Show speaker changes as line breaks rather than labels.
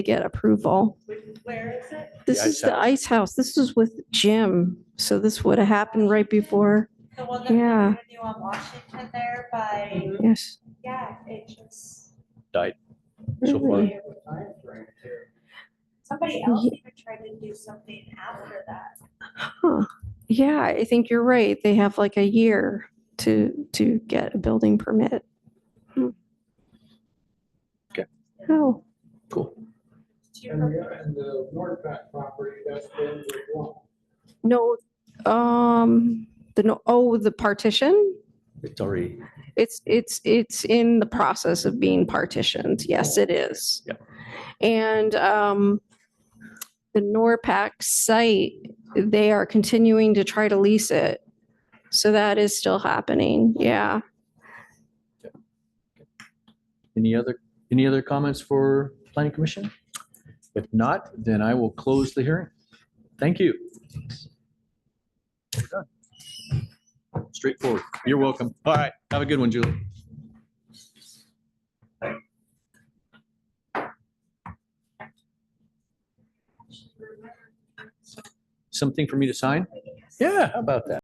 get approval.
Where is it?
This
ice
is the ice house. This was with Jim. So this would have happened right before.
The one that we
Yeah.
were new on Washington there by,
Yes.
yeah, it just.
So far,
Really?
Somebody else even tried to do something after that.
Huh. Yeah, I think you're right. They have like a year to, to get a building permit. Hmm.
Okay.
Oh,
cool.
Do you
And
remember?
the, and the Wardback property, that's been withdrawn.
no, um, the, no oh, the partition?
It's already,
It's, it's, it's in the process of being partitioned. Yes, it is.
Yep.
And um, the NORPAC site, they are continuing to try to lease it. So that is still happening. Yeah.
any other, any other comments for planning commission? If not, then I will close the hearing. Thank you. We're done. Straightforward. You're welcome. All right. Have a good one, Julie. Something for me to sign? Yeah, how about that?